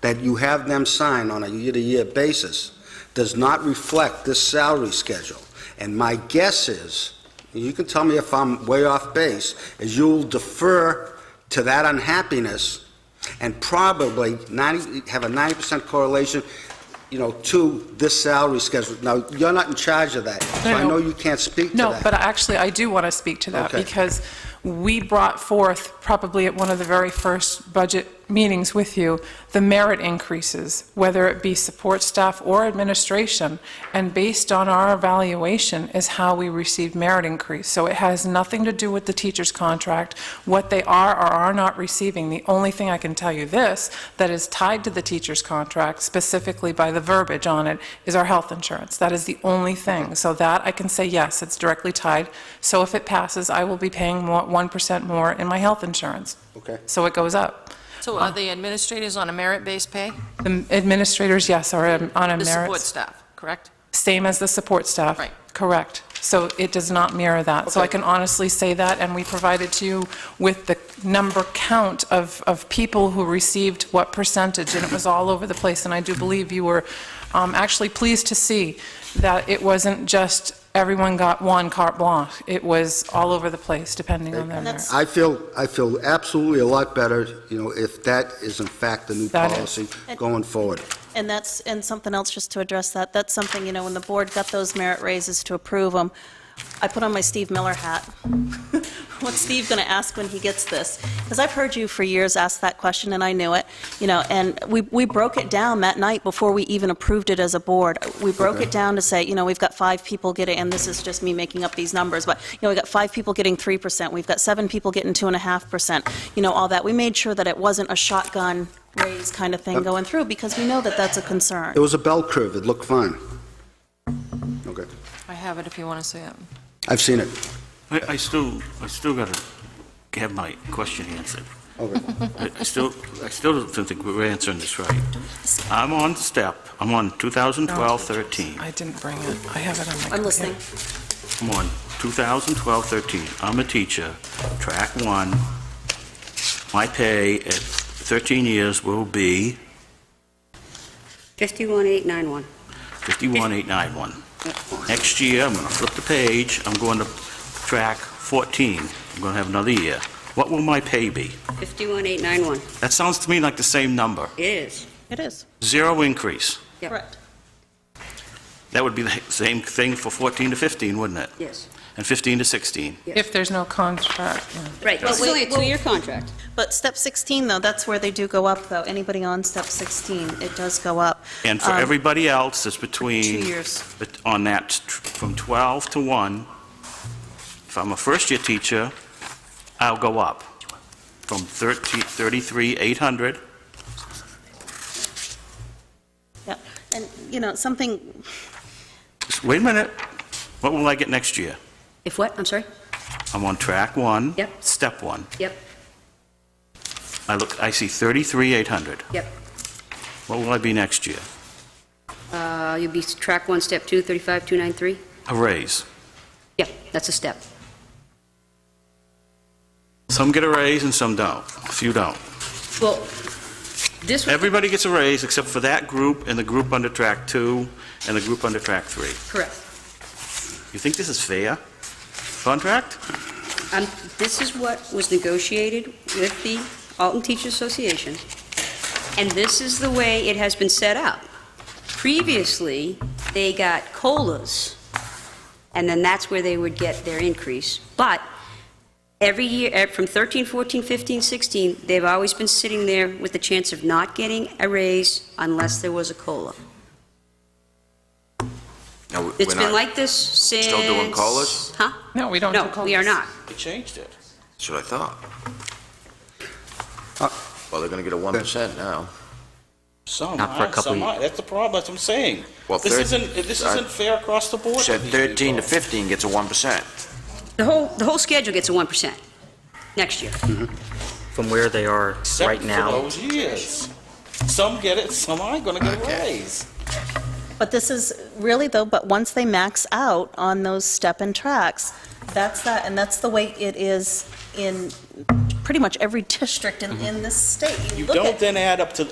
that you have them sign on a year-to-year basis does not reflect this salary schedule. And my guess is, you can tell me if I'm way off base, is you'll defer to that unhappiness and probably 90, have a 90% correlation, you know, to this salary schedule. Now, you're not in charge of that, so No, I no. know you can't speak to that. No, but actually, I do want to speak to that, Okay. because we brought forth, probably at one of the very first budget meetings with you, the merit increases, whether it be support staff or administration, and based on our evaluation is how we receive merit increase. So it has nothing to do with the teacher's contract, what they are or are not receiving. The only thing I can tell you this, that is tied to the teacher's contract, specifically by the verbiage on it, is our health insurance. That is the only thing. So that, I can say, yes, it's directly tied. So if it passes, I will be paying more, 1% more in my health insurance. Okay. So it goes up. So are the administrators on a merit-based pay? The administrators, yes, are on a The support merit, staff, correct? same as the support staff. Right. Correct. So it does not mirror that. So I Okay. can honestly say that, and we provided to you with the number count of, of people who received what percentage, and it was all over the place, and I do believe you were um, actually pleased to see that it wasn't just everyone got one carte blanche. It was all over the place, depending on their merit. I feel, I feel absolutely a lot better, you know, if that is in fact the new That is. policy going forward. And that's, and something else, just to address that, that's something, you know, when the board got those merit raises to approve them, I put on my Steve Miller hat. What's Steve going to ask when he gets this? Because I've heard you for years ask that question, and I knew it, you know, and we, we broke it down that night before we even approved it as a board. We broke it down to say, you know, we've got five people getting, and this is just me making up these numbers, but, you know, we've got five people getting 3%, we've got seven people getting 2.5%, you know, all that. We made sure that it wasn't a shotgun raise kind of thing going through, because we know that that's a concern. It was a bell curve, it looked fine. Okay, I have it if you want to say it. I've seen it. I, I still, I still gotta have my question answered. Okay. I I still, I still don't think we're answering this right. I'm on step, I'm on 2012-13, I didn't bring it. I have it on my... I'm listening. I'm on 2012-13, I'm a teacher, track one. My pay at 13 years will be 51891. 51,891. Next year, I'm gonna flip the page, I'm going to track 14, I'm gonna have another year. What will my pay be? 51891. That sounds to me like the same number, It is. It is. zero increase. Yep. Correct. That would be the same thing for 14 to 15, wouldn't it? Yes. And 15 to 16. If there's no contract, yeah. Right. This is wait, only a two-year contract. But step 16, though, that's where they do go up, though. Anybody on step 16, it does go up. And for Um, everybody else, it's between... Two years. bet- On that, tr- from 12 to 1, if I'm a first-year teacher, I'll go up from 13 33,800 Yep. And, you know, something, Wait a minute. What will I get next year? If what? I'm sorry? I'm on track one. Yep. Step one. Yep, I look, I see 33,800. yep. What will I be next year? Uh, You'll be track one, step two, 35293? A raise. Yep, that's a step. Some get a raise and some don't. A few don't. Well, this, was Everybody gets a raise except for that group and the group under track two and the group under track three. correct. You think this is fair? Contract? Um, This is what was negotiated with the Alton Teachers Association, and this is the way it has been set up. Previously, they got COLAs, and then that's where they would get their increase. But every year, eh, from 13, 14, 15, 16, they've always been sitting there with the chance of not getting a raise unless there was a COLA. No, It's we're been not. like this since... Still doing COLAs? Huh? No, we don't do No, we are COLAs. not. They changed it. That's what I thought. Uh, Well, they're gonna get a one percent now. Some Not for are, a couple some ye- aren't. That's the problem, that's what I'm saying. Well, This thir- isn't, this I isn't fair across the board. Said for these thirteen to people. fifteen gets a one percent. The whole, the whole schedule gets a 1% next year. From where they are right now. Except for those years. Some get it, some aren't gonna get a raise. but this is really, though, but once they max out on those step and tracks, that's that, and that's the way it is in pretty much every district in, in this state. Mm-hmm. You look at- don't then add up to